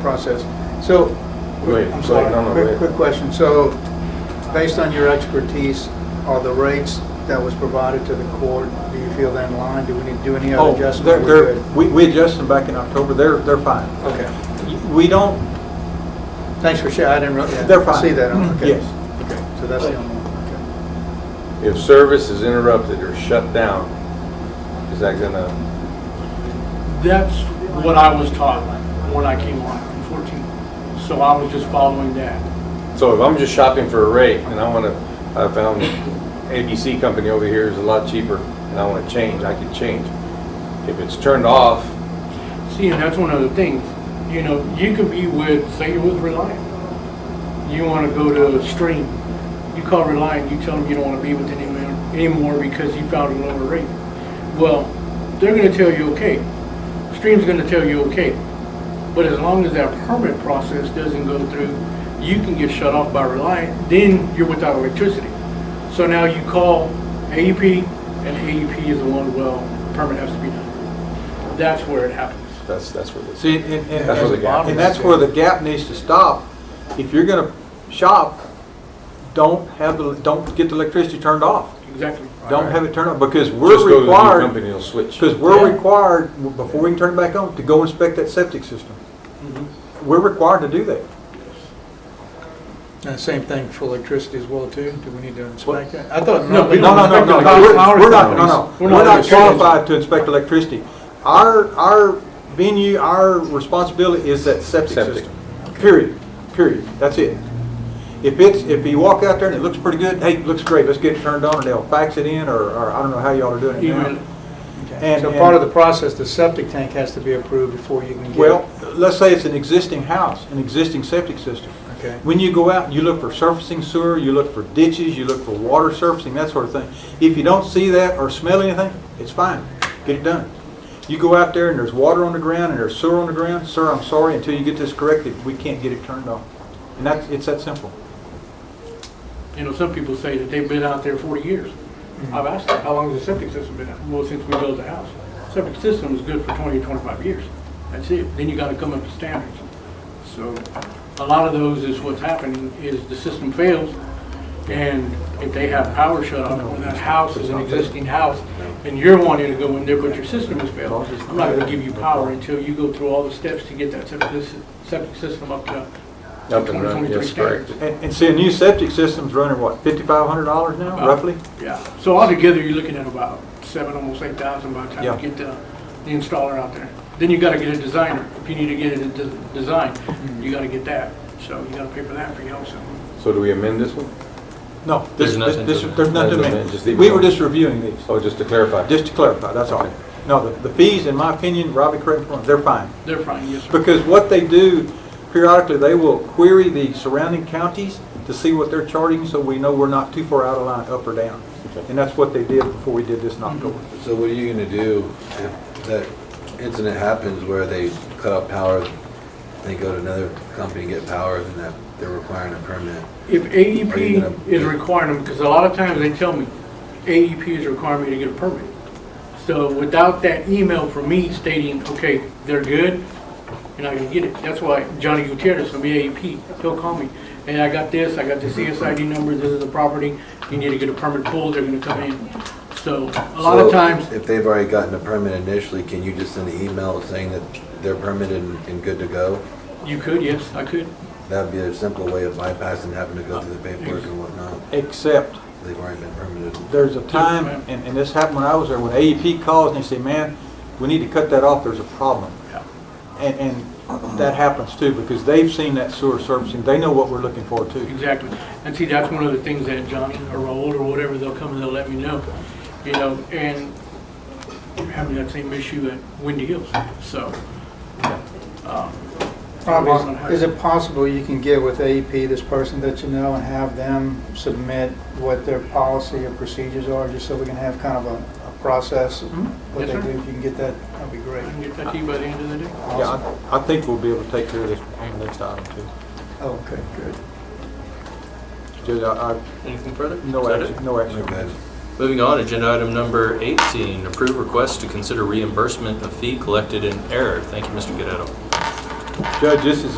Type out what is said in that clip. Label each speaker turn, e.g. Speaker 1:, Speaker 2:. Speaker 1: process. So,
Speaker 2: Wait,
Speaker 1: I'm
Speaker 2: wait,
Speaker 1: sorry,
Speaker 2: no, no,
Speaker 1: quick,
Speaker 2: wait.
Speaker 1: quick question. So, based on your expertise, are the rates that was provided to the court, do you feel they're in line? Do we need to do any
Speaker 3: Oh,
Speaker 1: other
Speaker 3: they're,
Speaker 1: adjustment? We're
Speaker 3: they're,
Speaker 1: good.
Speaker 3: we, we adjusted them back in October, they're, they're fine.
Speaker 1: Okay,
Speaker 3: We don't,
Speaker 1: thanks for sharing, I didn't really,
Speaker 3: They're fine.
Speaker 1: I see that, on- okay.
Speaker 3: Yes.
Speaker 1: Okay, so that's the only one, okay.
Speaker 2: If service is interrupted or shut down, is that gonna,
Speaker 4: That's what I was taught when I came on in 14. So I was just following that.
Speaker 2: so if I'm just shopping for a rate and I wanna, I found ABC company over here is a lot cheaper and I wanna change, I can change. If it's turned off,
Speaker 4: See, and that's one of the things, you know, you could be with, say you're with Reliant. You want to go to Stream. You call Reliant, you tell them you don't want to be with them anymore- anymore because you found a lower rate. Well, they're going to tell you, okay. Stream's going to tell you, okay. But as long as that permit process doesn't go through, you can get shut off by Reliant, then you're without electricity. So now you call AEP, and AEP is the one, well, permit has to be done. That's where it happens.
Speaker 2: that's, that's what it's.
Speaker 3: see, and, and,
Speaker 2: That's where the gap
Speaker 3: and
Speaker 2: is.
Speaker 3: that's where the gap needs to stop. If you're gonna shop, don't have, the don't get the electricity turned off.
Speaker 4: Exactly.
Speaker 3: Don't have it turned off, because
Speaker 2: Just go
Speaker 3: we're
Speaker 2: to the new
Speaker 3: required,
Speaker 2: company, it'll switch.
Speaker 3: because we're required, before we can turn it back on, to go inspect that septic system. We're required to do that.
Speaker 1: And same thing for electricity as well, too? Do we need to inspect that? I thought.
Speaker 4: No, we
Speaker 3: No, no, no, no, no, we're- we're not, no, no,
Speaker 4: We're
Speaker 3: we're
Speaker 4: not
Speaker 3: not
Speaker 4: electricians.
Speaker 3: qualified to inspect electricity. Our, our venue, our responsibility is that septic
Speaker 2: Septic.
Speaker 3: system. Period, period, that's it. If it's, if you walk out there and it looks pretty good, hey, looks great, let's get it turned on, and they'll fax it in, or, or I don't know how y'all are doing it now.
Speaker 4: Email.
Speaker 3: And-
Speaker 1: So part of the process, the septic tank has to be approved before you can get.
Speaker 3: Well, let's say it's an existing house, an existting septic system.
Speaker 1: Okay.
Speaker 3: When you go out and you look for surfacing sewer, you look for ditches, you look for water surfacing, that sort of thing. If you don't see that or smell anything, it's fine, get it done. You go out there and there's water on the ground and there's sewer on the ground, sir, I'm sorry, until you get this corrected, we can't get it turned off. And that's, it's that simple.
Speaker 4: You know, some people say that they've been out there forty years. I've asked them, how long has the septic system been out? Well, since we built the house. Septic system is good for 20 to 25 years. That's it. Then you gotta come up to standards. So a lot of those is what's happening is the system fails and if they have power shut off or that house is an existing house and you're wanting to go in there but your system is failed, I'm not gonna give you power until you go through all the steps to get that septic, sys- septic system up to
Speaker 2: Up and running,
Speaker 4: 2023
Speaker 2: yes, correct.
Speaker 4: standards.
Speaker 3: And, and see, a new septic system's running, what, fifty-five hundred dollars now,
Speaker 4: About-
Speaker 3: roughly?
Speaker 4: Yeah, so altogether, you're looking at about seven, almost eight thousand by the time
Speaker 3: Yeah.
Speaker 4: you get the, the installer out there. Then you gotta get a designer, if you need to get it de- designed,
Speaker 3: Mm-hmm.
Speaker 4: you gotta get that, so you gotta pay for that for you also.
Speaker 2: So do we amend this one?
Speaker 3: No. this-
Speaker 5: There's nothing to
Speaker 3: this-
Speaker 5: amend.
Speaker 3: There's nothing to
Speaker 2: Nothing to
Speaker 3: amend.
Speaker 2: amend, just leave it
Speaker 3: We were
Speaker 2: alone.
Speaker 3: just reviewing these.
Speaker 2: Oh, just to clarify.
Speaker 3: Just to clarify, that's all. No, the the fees, in my opinion, Robbie, correct me if I'm wrong, they're fine.
Speaker 4: They're fine, yes, sir.
Speaker 3: Because what they do periodically, they will query the surrounding counties to see what they're charging, so we know we're not too far out of line, up or down. And that's what they did before we did this in October.
Speaker 6: So what are you gonna do if that incident happens where they cut off power, they go to another company and get power, then that, they're requiring a permit?
Speaker 4: If
Speaker 6: Are you gonna-
Speaker 4: AEP is requiring them, because a lot of times they tell me, AEP is requiring me to get a permit. So without that email from me stating, okay, they're good, you're not gonna get it. That's why Johnny Gutierrez from AEP, he'll call me, hey, I got this, I got the CSID number, this is the property, you need to get a permit pulled, they're gonna come in. So a lot of
Speaker 6: So
Speaker 4: times,
Speaker 6: If they've already gotten a permit initially, can you just send an email saying that they're permitted and and good to go?
Speaker 4: you could, yes, I could.
Speaker 6: That'd be a simple way of bypassing having to go through the paperwork and whatnot.
Speaker 3: Except
Speaker 6: They've already been permitted.
Speaker 3: there's a time, and and this happened when I was there, when AEP calls and they say, man, we need to cut that off, there's a problem.
Speaker 4: Yeah.
Speaker 3: And, and that happens too, because they've seen that sewer servicing, they know what we're looking for too.
Speaker 4: Exactly. And see, that's one of the things that Johnny or Raul or whatever, they'll come and they'll let me know, you know, and we're having that same issue at Windy Hills, so. um,
Speaker 1: Probably, is it possible you can get with AEP, this person that you know, and have them submit what their policy or procedures are, just so we can have kind of a, a process? of
Speaker 4: Mhm.
Speaker 1: What they
Speaker 4: Yes,
Speaker 1: do,
Speaker 4: sir.
Speaker 1: if you can get that, that'd be great.
Speaker 4: I can get that to you by the end of the day.
Speaker 3: Yeah, I I think we'll be able to take care of this on the next item too.
Speaker 1: Okay, good.
Speaker 3: Judge, I, I-
Speaker 5: Anything further? Is
Speaker 3: no
Speaker 5: that
Speaker 3: action, no action.
Speaker 6: They're good.
Speaker 5: it? Moving on, agenda item number 18, approve request to consider reimbursement of fee collected in error. Thank you, Mr. Guerrero.
Speaker 3: Judge, this is